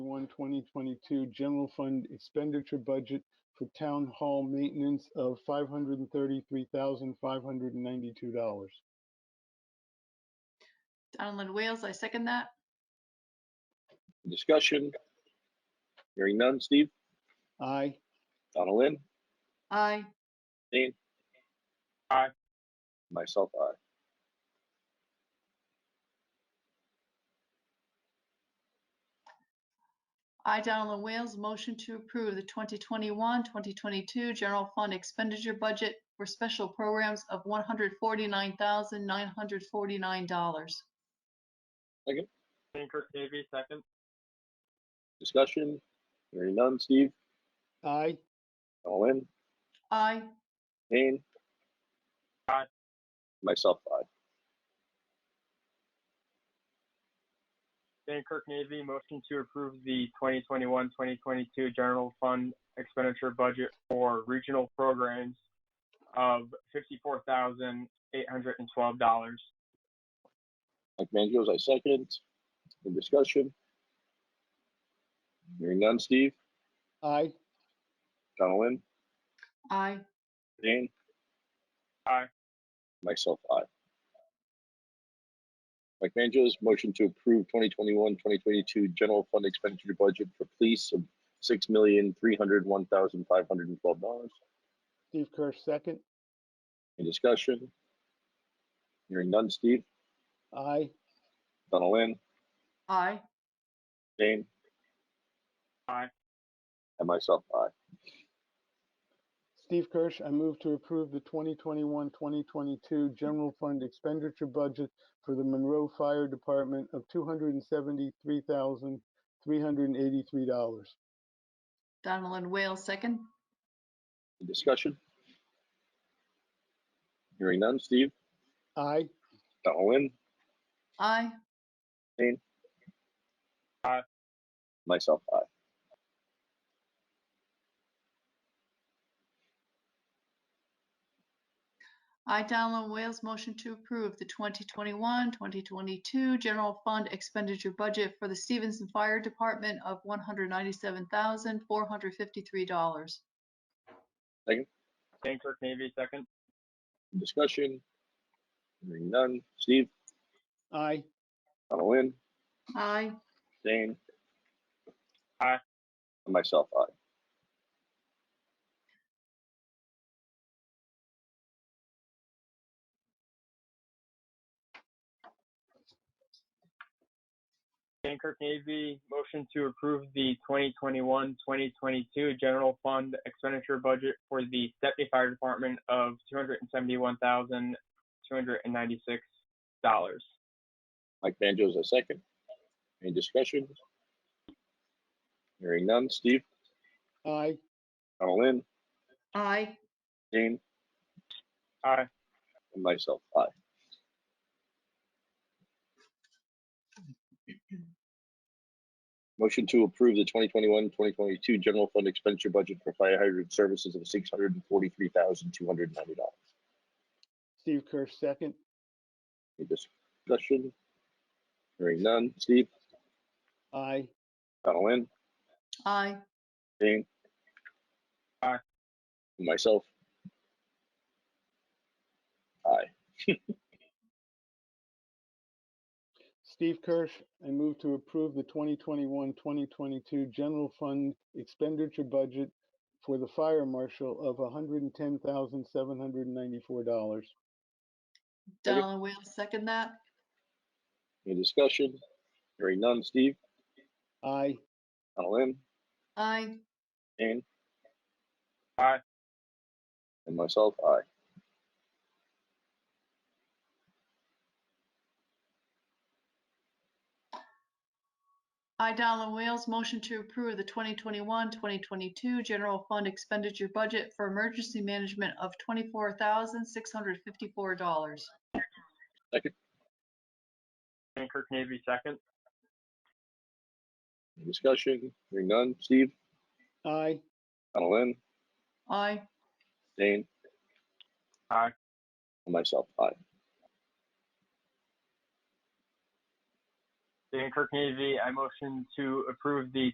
31, 2022 general fund expenditure budget for town hall maintenance of $533,592. Donald Wales, I second that. Discussion? Hearing none. Steve? Aye. Donaldin? Aye. Dean? Aye. Myself, aye. I, Donald Wales, motion to approve the 2021, 2022 general fund expenditure budget for special programs of $149,949. Dankirk Navy, second. Discussion? Hearing none. Steve? Aye. Donaldin? Aye. Dean? Aye. Myself, aye. Dankirk Navy, motion to approve the 2021, 2022 general fund expenditure budget for regional programs of $54,812. Mike Mangios, I second. In discussion? Hearing none. Steve? Aye. Donaldin? Aye. Dean? Aye. Myself, aye. Mike Manjos, motion to approve 2021, 2022 general fund expenditure budget for police of $6,301,512. Steve Kirsch, second. Any discussion? Hearing none. Steve? Aye. Donaldin? Aye. Dane? Aye. And myself, aye. Steve Kirsch, I move to approve the 2021, 2022 general fund expenditure budget for the Monroe Fire Department of $273,383. Donald Wales, second. Any Discussion? Hearing none. Steve? Aye. Donaldin? Aye. Myself, aye. I, Donald Wales, motion to approve the 2021, 2022 general fund expenditure budget for the Stevenson Fire Department of $197,453. Dankirk Navy, second. Any Discussion? Hearing none. Steve? Aye. Donaldin? Aye. Dane? Aye. And myself, aye. Dankirk Navy, motion to approve the 2021, 2022 general fund expenditure budget for the Stepney Fire Department of $271,296. Mike Manjos, a second. Any discussion? Hearing none. Steve? Aye. Donaldin? Aye. Dane? Aye. And myself, aye. Motion to approve the 2021, 2022 general fund expenditure budget for fire hydrant services of $643,290. Steve Kirsch, second. Any discussion? Hearing none. Steve? Aye. Donaldin? Aye. Dane? Aye. And Myself? Aye. Steve Kirsch, I move to approve the 2021, 2022 general fund expenditure budget for the fire marshal of $110,794. Second. Donald Wales, second that. Any discussion? Hearing none. Steve? Aye. Donaldin? Aye. Dane? Aye. And myself, aye. I, Donald Wales, motion to approve the 2021, 2022 general fund expenditure budget for emergency management of $24,654. Dankirk Navy, second. Any Discussion? Hearing none. Steve? Aye. Donaldin? Aye. Dane? Aye. And myself, aye. Dankirk Navy, I motion to approve the